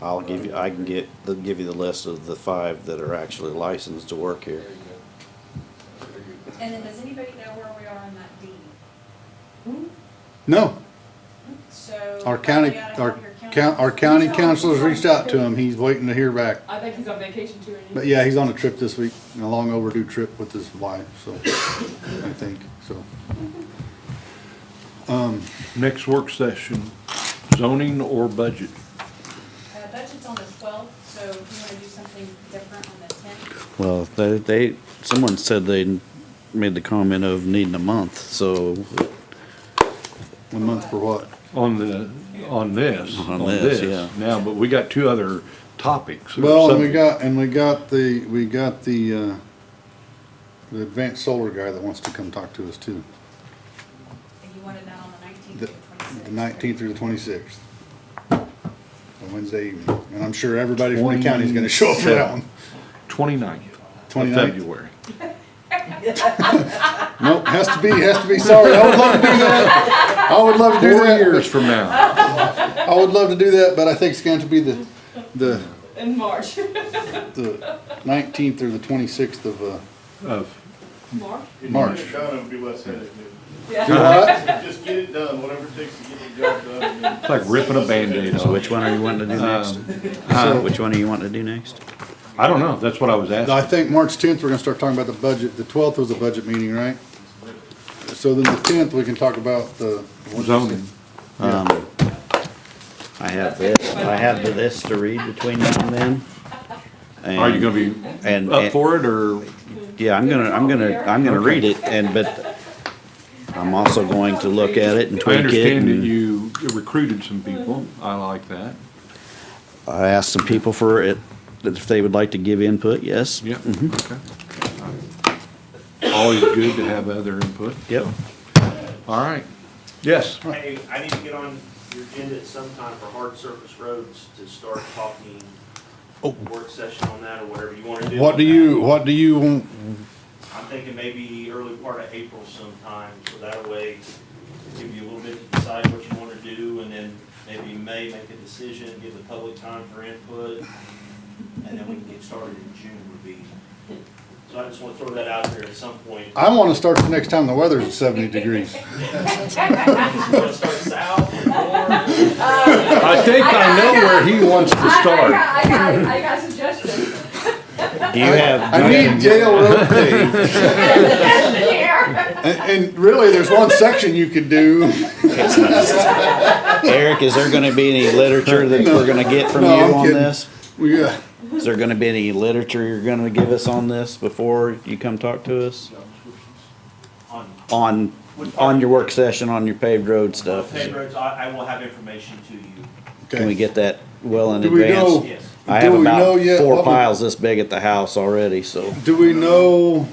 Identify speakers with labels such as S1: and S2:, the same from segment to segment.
S1: I'll give you, I can get, the- give you the list of the five that are actually licensed to work
S2: There you
S1: here.
S2: go. There you go.
S3: And then does anybody know where we are on that deed?
S4: No,
S3: So.
S4: our county,
S3: you gotta
S4: our
S3: have your
S4: coun, our county councilor's reached out to him, he's waiting to hear back.
S5: I think he's on vacation too. and he-
S4: But yeah, he's on a trip this week, a long overdue trip with his wife, so, I think, so.
S6: Next work session, zoning or budget?
S3: Uh, budget's on the twelfth, so if you wanna do something different on the tenth,
S1: Well, they, they, someone said they made the comment of needing a month, so
S4: A month for what?
S6: On the, on this,
S1: On
S6: on
S1: this,
S6: this,
S1: yeah.
S6: now, but we got two other topics. or
S4: Well, and we
S6: subjects.
S4: got, and we got the, we got the, uh, the advanced solar guy that wants to come talk to us too,
S3: if you wanted that on the nineteenth or
S4: the
S3: twenty-sixth.
S4: the nineteenth through the twenty-sixth. On Wednesday evening, and I'm sure everybody from the county's gonna show up for that one.
S6: 29th of
S4: 29th?
S6: February.
S4: Nope, has to be, has to be, sorry, I would love to do that, I would love to do
S6: Four
S4: that.
S6: years from now.
S4: I would love to do that, but I think it's going to be the, the,
S5: In March.
S4: the nineteenth or the twenty-sixth of, uh,
S6: Of-
S5: March?
S4: March.
S7: Get it done, it'll be less headache. dude.
S4: do
S5: Yeah.
S4: what?
S7: Just get it done, whatever it takes to get the job done. and then-
S6: It's like ripping a Band-Aid
S1: So
S6: off.
S1: which one are you wanting to do next?
S6: huh?
S1: Which one are you wanting to do next?
S6: I don't know, that's what I was
S4: I
S6: asking.
S4: think March tenth, we're gonna start talking about the budget. The twelfth was a budget meeting, right? So then the tenth, we can talk about the.
S6: Zoning.
S1: Um, I have this, I have the this to read between now and then.
S6: Are you gonna be
S1: And,
S6: up
S1: and,
S6: for it, or
S1: yeah, I'm gonna, I'm gonna, I'm gonna read it and, but I'm also going to look at it and
S6: I
S1: tweak it.
S6: understand that
S1: and
S6: you recruited some people, I like that.
S1: I asked some people for it, that if they would like to give input, yes.
S6: Yep,
S1: Mm-hmm.
S6: okay. Always good to have other input.
S1: Yep.
S6: All right, yes.
S8: Hey, I need to get on your agenda at some time for hard surface roads to start talking Oh. work session on that or whatever you wanna do.
S4: What
S8: on
S4: do
S8: that.
S4: you, what do you, want?
S8: I'm thinking maybe early part of April sometime, so that way give you a little bit to decide what you wanna do and then maybe May make a decision, give the public time for input. And then we can get started in June would be. So I just wanna throw that out there at some point.
S4: I wanna start the next time the weather's at seventy degrees.
S8: You wanna start south or north?
S6: I think I know where he wants to
S5: I, I
S6: start.
S5: got, I got, I got suggestions.
S1: Do you have?
S4: I need Yale Road paved.
S5: Here.
S4: And, and really, there's one section you could do.
S1: Eric, is there gonna be any literature that we're gonna get from you
S4: No, I'm
S1: on
S4: kidding.
S1: this?
S4: We, uh,
S1: Is there gonna be any literature you're gonna give us on this before you come talk to us?
S8: On
S1: On, on your work session, on your paved road stuff?
S8: Pay roads, I, I will have information to you,
S1: Can we
S4: okay.
S1: get that well in
S4: Do we
S1: advance?
S4: know-
S8: yes.
S1: I
S4: do
S1: have
S4: we know
S1: about
S4: yet
S1: four
S4: what we-
S1: piles this big at the house already, so.
S4: Do we know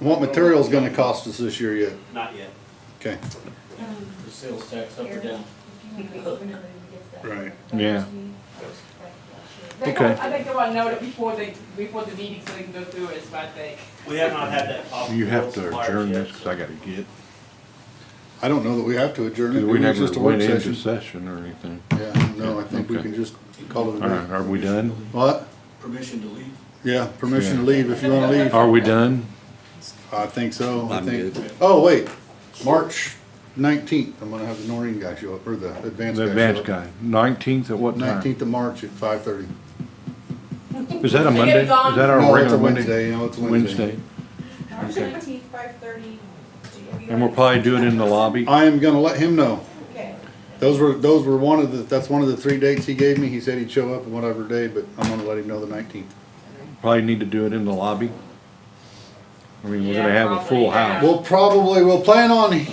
S4: what material's gonna cost us this year yet?
S8: Not yet.
S4: Okay.
S2: The sales tax up or down?
S4: Right.
S6: Yeah.
S5: They
S6: Okay.
S5: want- I think they want to know it before they, before the meeting, so they can go through it, is what I think.
S8: We have not had that problem.
S6: You have
S8: with
S6: to
S8: suppliers
S6: adjourn
S8: yet,
S6: this because I got to get,
S4: I don't know that we have to adjourn it.
S6: because we
S4: It's
S6: never
S4: just a work
S6: went into
S4: session.
S6: session or anything.
S4: Yeah, no, I think we
S6: Okay.
S4: can just call it
S6: All
S4: a
S6: right,
S4: day.
S6: are we done?
S4: What?
S2: Permission to leave?
S4: Yeah, permission to leave if you wanna leave.
S6: Are we done?
S4: I think so, I
S1: I'm
S4: think.
S1: good.
S4: Oh, wait, March nineteenth, I'm gonna have the Noreen guy show up, or the advanced
S6: The
S4: guy.
S6: advance guy, 19th at what time?
S4: Nineteenth of March at five thirty.
S6: Is that a Monday? Is
S5: gone.
S6: that our
S4: No, it's a
S6: regular Monday?
S4: Wednesday, no, it's a Wednesday.
S6: Wednesday,
S3: March
S6: Okay.
S3: nineteenth, five thirty.
S6: and we'll probably do it in the lobby.
S4: I am gonna let him know.
S3: Okay.
S4: Those were, those were one of the, that's one of the three dates he gave me. He said he'd show up on whatever day, but I'm gonna let him know the nineteenth.
S6: Probably need to do it in the lobby. I mean, we're gonna
S5: Yeah,
S6: have a full
S5: probably, yeah.
S6: house.
S4: We'll probably, we'll plan on